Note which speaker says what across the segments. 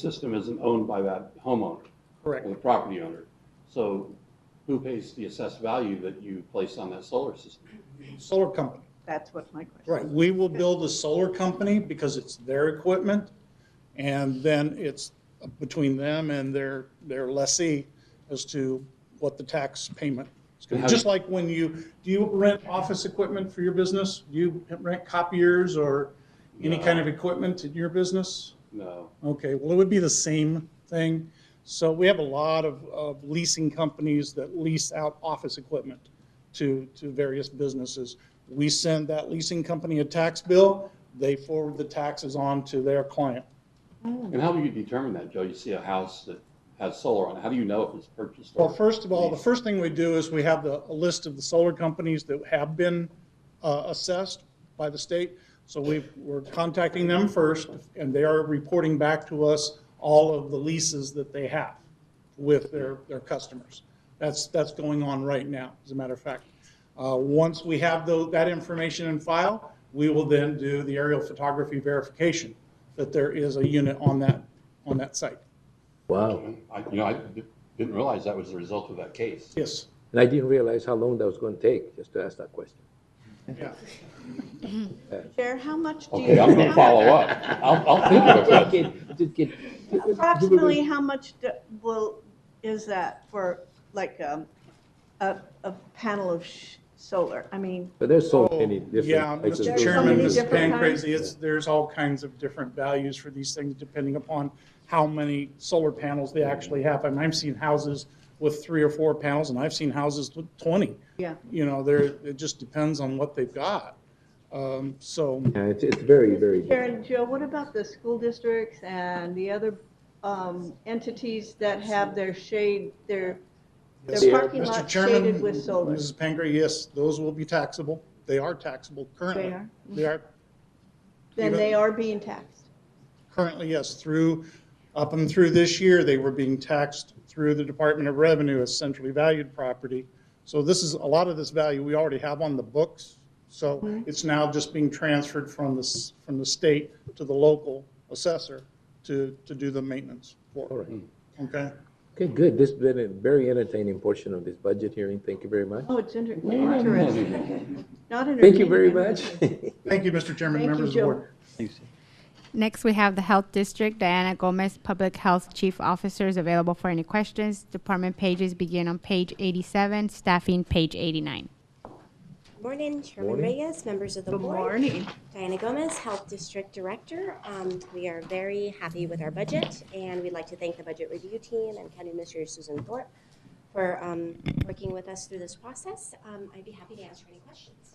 Speaker 1: system isn't owned by that homeowner
Speaker 2: Correct.
Speaker 1: or the property owner. So who pays the assessed value that you place on that solar system?
Speaker 2: Solar company.
Speaker 3: That's what my question.
Speaker 2: Right, we will build a solar company because it's their equipment, and then it's between them and their, their lessee as to what the tax payment is going to
Speaker 1: How-
Speaker 2: be. Just like when you, do you rent office equipment for your business? Do you rent copiers or any
Speaker 1: No.
Speaker 2: kind of equipment in your business?
Speaker 1: No.
Speaker 2: Okay, well, it would be the same thing. So we have a lot of, of leasing companies that lease out office equipment to, to various businesses. We send that leasing company a tax bill, they forward the taxes on to their client.
Speaker 1: And how do you determine that, Joe? You see a house that has solar on it. How do you know if it's purchased or?
Speaker 2: Well, first of all, the
Speaker 1: leased?
Speaker 2: first thing we do is we have the, a list of the solar companies that have been uh, assessed by the state. So we, we're contacting them first, and they are reporting back to us all of the leases that they have with their, their customers. That's, that's going on right now, as a matter of fact. Uh, Once we have tho- that information in file, we will then do the aerial photography verification that there is a unit on that, on that site.
Speaker 4: Wow.
Speaker 1: I, you know, I di- didn't realize that was the result of that case.
Speaker 2: Yes,
Speaker 4: And I didn't realize how long that was going to take just to ask that question.
Speaker 2: yeah.
Speaker 3: Chair, how much do you?
Speaker 1: Okay, I'm gonna
Speaker 3: how-
Speaker 1: follow up. I'll, I'll think of it.
Speaker 4: Just kid- just kid.
Speaker 3: Approximately, how much do- will, is that for like um, a, a panel of sh- solar? I mean,
Speaker 4: But there's so
Speaker 2: Oh,
Speaker 4: many different.
Speaker 2: Yeah,
Speaker 4: types of
Speaker 2: Mr.
Speaker 4: those
Speaker 2: Chairman,
Speaker 3: many
Speaker 4: things.
Speaker 2: Mr.
Speaker 3: different kinds.
Speaker 2: Pancrazy, it's, there's all kinds of different values for these things depending upon how many solar panels they actually have. I mean, I've seen houses with three or four panels and I've seen houses with 20.
Speaker 3: yeah,
Speaker 2: You know, there, it just depends on what they've got. Um, So,
Speaker 4: Yeah, it's, it's very, very.
Speaker 3: Chair and Joe, what about the school districts and the other um, entities that have their shade, their,
Speaker 2: Yes.
Speaker 3: their parking
Speaker 2: Mr.
Speaker 3: lot
Speaker 2: Chairman,
Speaker 3: shaded with solar?
Speaker 2: Mrs. Pancrazy, yes, those will be taxable. They are taxable currently.
Speaker 3: They are?
Speaker 2: They are
Speaker 3: Then
Speaker 2: even-
Speaker 3: they are being taxed.
Speaker 2: Currently, yes, through, up and through this year, they were being taxed through the Department of Revenue as centrally valued property. So this is, a lot of this value we already have on the books. So
Speaker 3: Mm-hmm.
Speaker 2: it's now just being transferred from the, s- from the state to the local assessor to, to do the maintenance
Speaker 4: All
Speaker 2: for it.
Speaker 4: right.
Speaker 2: Okay?
Speaker 4: Okay, good. This has been a very entertaining portion of this budget hearing. Thank you very much.
Speaker 3: Oh, it's inter-
Speaker 1: Wait a minute.
Speaker 3: interesting. Not entertaining.
Speaker 4: Thank you very much.
Speaker 2: Thank you, Mr. Chairman,
Speaker 3: Thank you,
Speaker 2: members of the board.
Speaker 3: Joe.
Speaker 5: Next, we have the Health District, Diana Gomez, Public Health Chief Officers, available for any questions. Department pages begin on page 87, staffing page 89.
Speaker 6: Morning, Chairman Reyes, members of the
Speaker 3: Good
Speaker 6: board.
Speaker 3: morning.
Speaker 6: Diana Gomez, Health District Director. Um, We are very happy with our budget, and we'd like to thank the Budget Review Team and County Administrator Susan Thorpe for um, working with us through this process. Um, I'd be happy to answer any questions.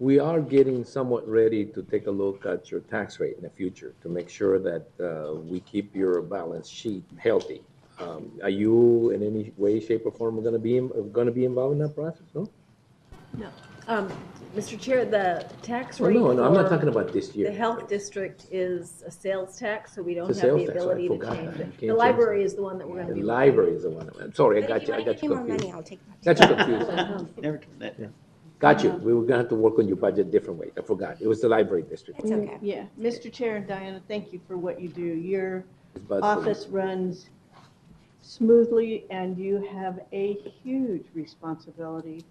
Speaker 4: We are getting somewhat ready to take a look at your tax rate in the future to make sure that uh, we keep your balance sheet healthy. Um, Are you in any way, shape, or form going to be, going to be involved in that process? No?
Speaker 7: Um, Mr. Chair, the tax
Speaker 4: Well,
Speaker 7: rate.
Speaker 4: Oh, no, no, I'm not
Speaker 7: for
Speaker 4: talking about this year.
Speaker 7: The health district is a sales tax, so we don't
Speaker 4: It's a
Speaker 7: have
Speaker 4: sales
Speaker 7: the
Speaker 4: tax, I
Speaker 7: ability to
Speaker 4: forgot
Speaker 7: change
Speaker 4: that. You
Speaker 7: it.
Speaker 4: can't
Speaker 7: The
Speaker 4: change
Speaker 7: library is the one that we're gonna
Speaker 4: The
Speaker 7: be.
Speaker 4: library is the one, I'm sorry, I
Speaker 6: But
Speaker 4: got
Speaker 6: if
Speaker 4: you, I
Speaker 6: want to
Speaker 4: got
Speaker 6: give me
Speaker 4: you
Speaker 6: more
Speaker 4: confused.
Speaker 6: money, I'll take that.
Speaker 4: Got you confused.
Speaker 8: Never do that.
Speaker 4: Got you. We were gonna have to work on your budget different way. I forgot. It was the library district.
Speaker 6: It's okay.
Speaker 3: Yeah, Mr. Chair and Diana, thank you for what you do. Your
Speaker 4: It's about-
Speaker 3: office runs smoothly and you have a huge responsibility.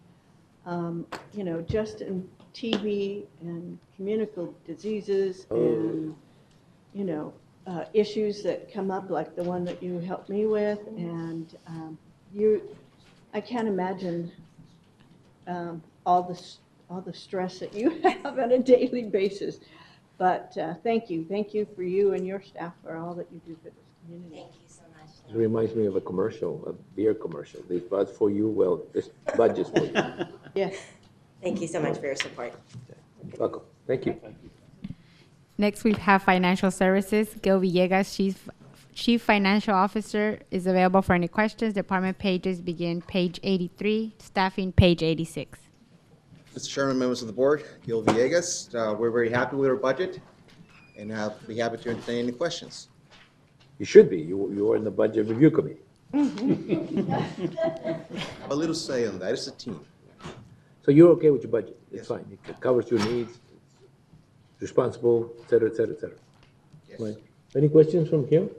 Speaker 3: Um, You know, just in TB and communicable diseases
Speaker 4: Oh.
Speaker 3: and, you know, uh, issues that come up like the one that you helped me with. And um, you, I can't imagine um, all the, s- all the stress that you have on a daily basis. But uh, thank you, thank you for you and your staff for all that you do for this community.
Speaker 6: Thank you so much.
Speaker 4: It reminds me of a commercial, a beer commercial. This bud's for you, well, this budget's for you.
Speaker 3: Yes,
Speaker 6: Thank you so much for your support.
Speaker 4: Welcome. Thank you.
Speaker 5: Next, we have Financial Services, Gil Villegas, Chief, Chief Financial Officer, is available for any questions. Department pages begin page 83, staffing page 86.
Speaker 9: Mr. Chairman, members of the board, Gil Villegas, uh, we're very happy with our budget and uh, be happy to entertain any questions.
Speaker 4: You should be. You, you are in the budget review committee.
Speaker 9: I have A little say on that, it's a team.
Speaker 4: So you're okay with your budget? It's
Speaker 9: Yes.
Speaker 4: fine. It co- covers your needs, it's responsible, et cetera, et cetera, et cetera.
Speaker 9: Yes.
Speaker 4: Right. Any questions from here?